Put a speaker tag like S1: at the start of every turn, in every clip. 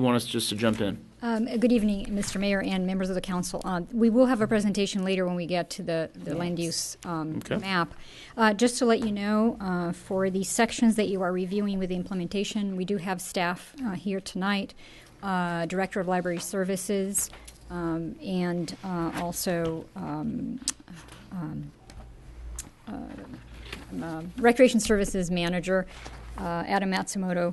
S1: You want us just to jump in?
S2: Um, Good evening, Mr. Mayor and members of the council. Uh, We will have a presentation later when we get to the the land use um,
S1: Okay.
S2: map. Uh, Just to let you know, uh, for the sections that you are reviewing with the implementation, we do have staff uh, here tonight, uh, Director of Library Services, um, and uh, also um, uh, um, Recreation Services Manager, uh, Adam Matsumoto.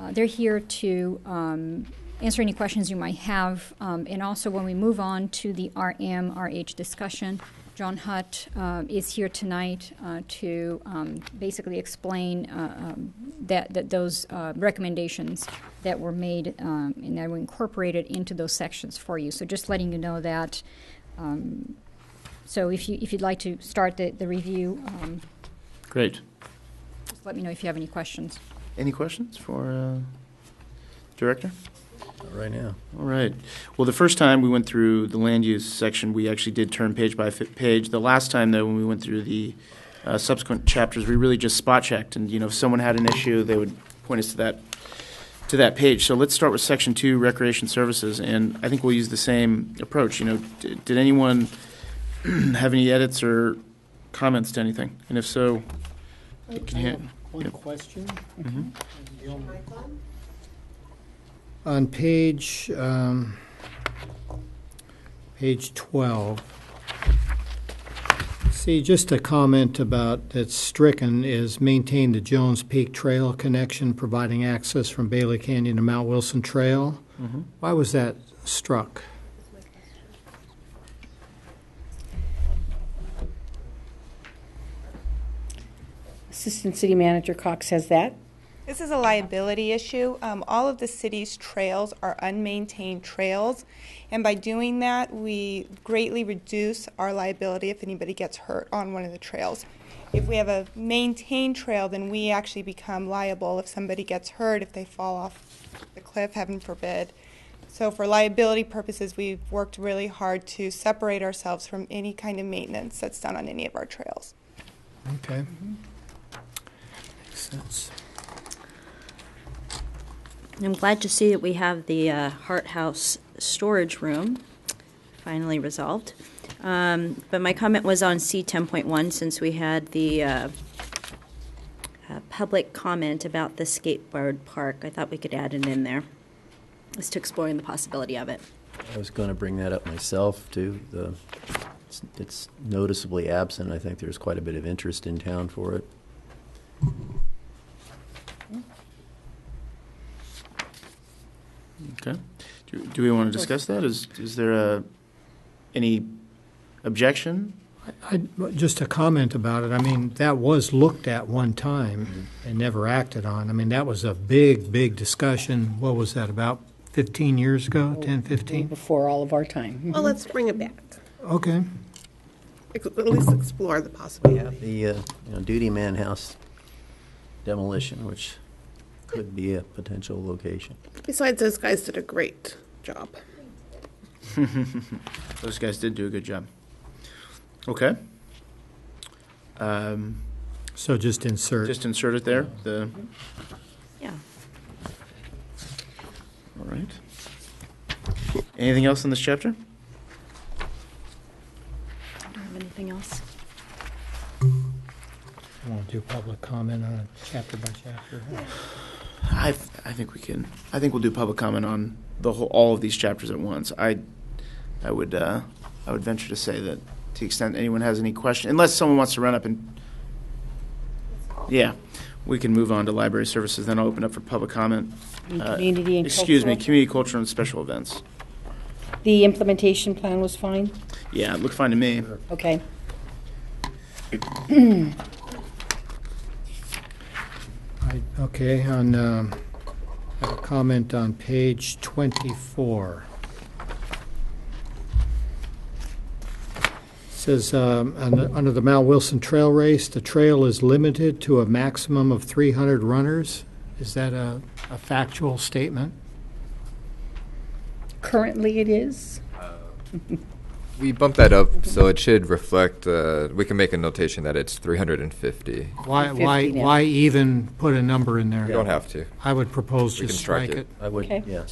S2: Uh, They're here to um, answer any questions you might have. Um, And also, when we move on to the RM, RH discussion, John Hutt uh, is here tonight uh, to um, basically explain uh, um, that, that those uh, recommendations that were made um, and that were incorporated into those sections for you. So just letting you know that. um, So if you, if you'd like to start the, the review, um,
S1: Great.
S2: just let me know if you have any questions.
S1: Any questions for uh, Director?
S3: right now.
S1: All right. Well, the first time we went through the land use section, we actually did turn page by fi- page. The last time, though, when we went through the uh, subsequent chapters, we really just spot checked, and you know, if someone had an issue, they would point us to that to that page. So let's start with section two, recreation services, and I think we'll use the same approach. You know, d- did anyone have any edits or comments to anything? And if so, you can hand-
S4: One
S1: Yep.
S4: question.
S1: Mhm.
S4: Mm-hmm. On page, um, page 12, see, just a comment about, that's stricken, is maintain the Jones Peak Trail connection, providing access from Bailey Canyon to Mount Wilson Trail.
S1: Mhm.
S4: Why was that struck?
S5: Assistant City Manager Cox has that.
S6: This is a liability issue. Um, all of the city's trails are unmaintained trails, and by doing that, we greatly reduce our liability if anybody gets hurt on one of the trails. If we have a maintained trail, then we actually become liable if somebody gets hurt, if they fall off the cliff, heaven forbid. So, for liability purposes, we've worked really hard to separate ourselves from any kind of maintenance that's done on any of our trails.
S4: Okay. Makes sense.
S7: I'm glad to see that we have the uh, Hart House storage room finally resolved. Um, But my comment was on C 10.1, since we had the uh, uh, public comment about the skateboard park. I thought we could add it in there, as to exploring the possibility of it.
S3: I was going to bring that up myself, too. The, it's- it's noticeably absent. I think there's quite a bit of interest in town for it.
S1: Okay. Do, do we want to discuss that? Is, is there a, any objection?
S4: I, just a comment about it, I mean, that was looked at one time and never acted on. I mean, that was a big, big discussion, what was that, about 15 years ago, 10, 15?
S5: Before all of our time.
S8: Well, let's bring it back.
S4: Okay,
S8: Ex- At least explore the possibility.
S3: The, uh, you know, Duty Man House demolition, which could be a potential location.
S8: Besides, those guys did a great job.
S1: Those guys did do a good job. Okay. Um,
S4: so just insert,
S1: just insert it there, the,
S7: Yeah.
S1: all right. Anything else in this chapter?
S7: I don't have anything else.
S4: I want to do public comment on it chapter by chapter.
S1: I, I think we can, I think we'll do public comment on the whole, all of these chapters at once. I, I would, uh, I would venture to say that to the extent anyone has any question, unless someone wants to run up and, yeah, we can move on to library services, then I'll open up for public comment.
S5: And
S1: Uh,
S5: Community and
S1: Excuse me,
S5: cultural.
S1: community, culture, and special events.
S5: The implementation plan was fine?
S1: Yeah, it looked fine to me.
S5: Okay.
S4: I- Okay, on, um, I have a comment on page 24. Says, um, un- under the Mount Wilson Trail Race, the trail is limited to a maximum of 300 runners. Is that a a factual statement?
S5: Currently it is?
S9: We bumped that up, so it should reflect, uh, we can make a notation that it's 350.
S4: Why, why,
S5: 350 now.
S4: why even put a number in there?
S9: You don't have to.
S4: I would propose
S9: We
S4: just
S9: can strike
S4: strike
S9: it.
S4: it.
S3: I would,
S5: Okay.
S3: yeah,